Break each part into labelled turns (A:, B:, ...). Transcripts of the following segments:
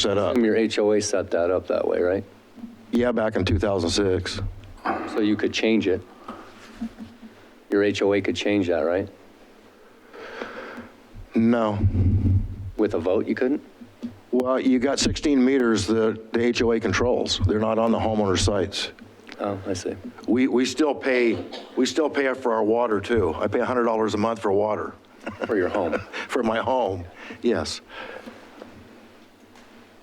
A: set up.
B: Your HOA set that up that way, right?
A: Yeah, back in 2006.
B: So you could change it. Your HOA could change that, right?
A: No.
B: With a vote, you couldn't?
A: Well, you got 16 meters that the HOA controls. They're not on the homeowner sites.
B: Oh, I see.
A: We, we still pay, we still pay for our water too. I pay $100 a month for water,
B: For your home.
A: for my home, yes.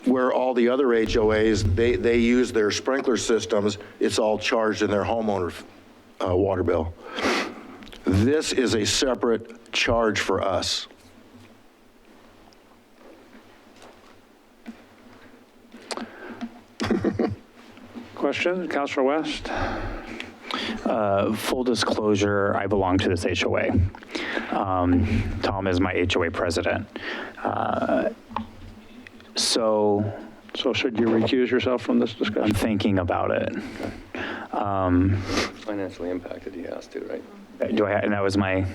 A: Where all the other HOAs, they, they use their sprinkler systems, it's all charged in their homeowner uh, water bill. This is a separate charge for us.
C: Question, Counselor West?
D: Uh, full disclosure, I belong to this HOA. Um, Tom is my HOA president. Uh, So
C: So should you recuse yourself from this
D: I'm
C: discussion?
D: thinking about it.
B: Financially impacted, he has to, right?
D: Do I, and that was my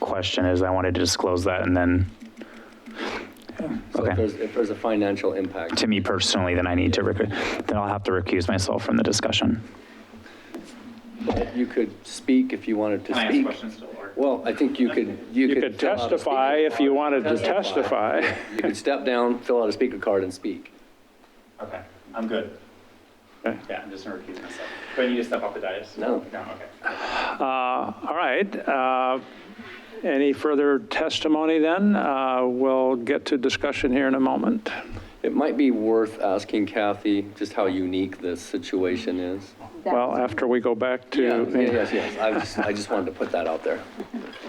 D: question is I wanted to disclose that and then
B: So if
D: Okay.
B: there's, if there's a financial impact,
D: to me personally, then I need to, recu- then I'll have to recuse myself from the discussion.
B: you could speak if you wanted to speak. Well, I think you could, you could.
C: You could
B: fill out a speaker
C: testify if you
B: card.
C: wanted to testify.
B: You could step down, fill out a speaker card and speak.
D: Okay, I'm good.
C: Okay.
D: Yeah, I'm just gonna recuse myself. Do I need to step off the dais?
B: No.
D: No, okay.
C: All right. uh, Any further testimony then? Uh, We'll get to discussion here in a moment.
B: It might be worth asking Kathy just how unique this situation is.
C: Well, after we go back
B: Yeah,
C: to,
B: Yes, yes, I just, I just wanted to put that out there.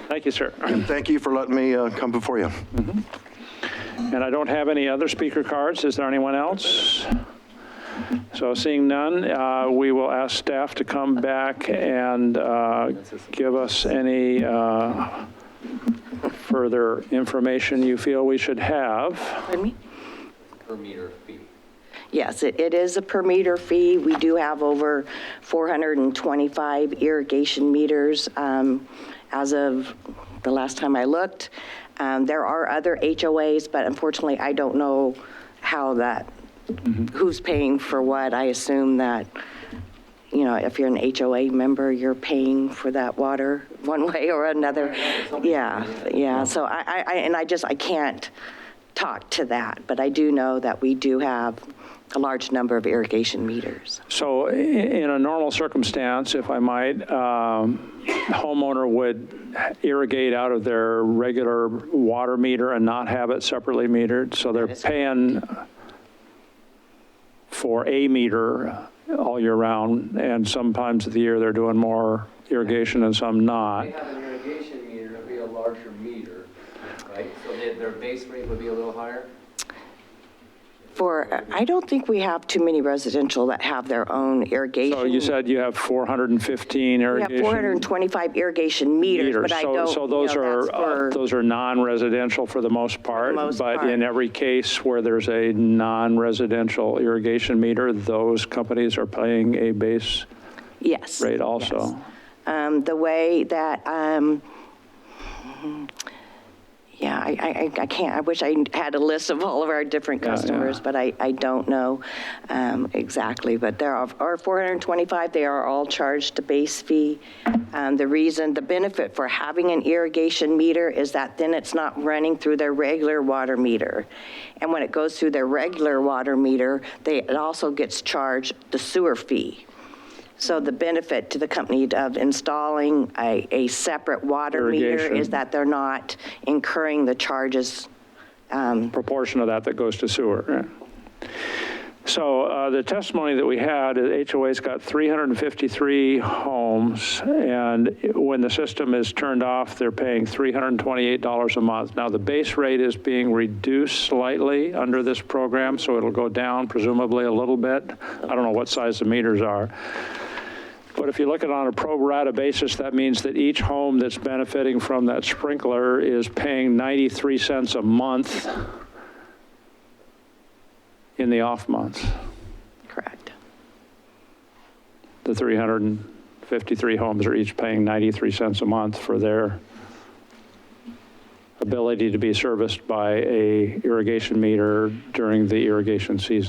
C: thank you, sir.
A: Thank you for letting me uh, come before you.
C: And I don't have any other speaker cards. Is there anyone else? So seeing none, uh, we will ask staff to come back and uh, give us any uh, further information you feel we should have.
E: Pardon me?
B: Per meter fee.
E: Yes, it it is a per meter fee. We do have over 425 irrigation meters um, as of the last time I looked. Um, There are other HOAs, but unfortunately, I don't know how that, who's paying for what. I assume that, you know, if you're an HOA member, you're paying for that water one way or another. Yeah, yeah, so I, I- I, and I just, I can't talk to that, but I do know that we do have a large number of irrigation meters.
C: So i- in a normal circumstance, if I might, um, homeowner would irrigate out of their regular water meter and not have it separately metered, so they're
E: is correct.
C: paying for a meter all year round, and sometimes of the year they're doing more irrigation and some not.
B: They have an irrigation meter, it'd be a larger meter, right? So their, their base rate would be a little higher?
E: For, I don't think we have too many residential that have their own irrigation.
C: So you said you have 415
E: We have
C: irrigation.
E: 425 irrigation meters,
C: meters.
E: but I
C: So-
E: don't,
C: So
E: you
C: those
E: know,
C: are,
E: that's
C: uh,
E: for-
C: those are non-residential for the most part.
E: most
C: But
E: part.
C: in every case where there's a non-residential irrigation meter, those companies are paying a base
E: yes.
C: rate also.
E: um, the way that, um, yeah, I, I, I- I can't, I wish I had a list of all of our different
C: Yeah, yeah.
E: customers, but I, I don't know um, exactly. But there are are 425, they are all charged a base fee. Um, The reason, the benefit for having an irrigation meter is that then it's not running through their regular water meter. And when it goes through their regular water meter, they, it also gets charged the sewer fee. So the benefit to the company of installing a, a separate water meter
C: Irrigation.
E: is that they're not incurring the charges.
C: proportion of that that goes to sewer. So uh, the testimony that we had, uh, is HOA's got 353 homes, and when the system is turned off, they're paying $328 a month. Now, the base rate is being reduced slightly under this program, so it'll go down presumably a little bit. I don't know what size the meters are. But if you look at it on a pro rata basis, that means that each home that's benefiting from that sprinkler is paying 93 cents a month in the off months,
E: Correct.
C: the 353 homes are each paying 93 cents a month for their ability to be serviced by a irrigation meter during the irrigation season.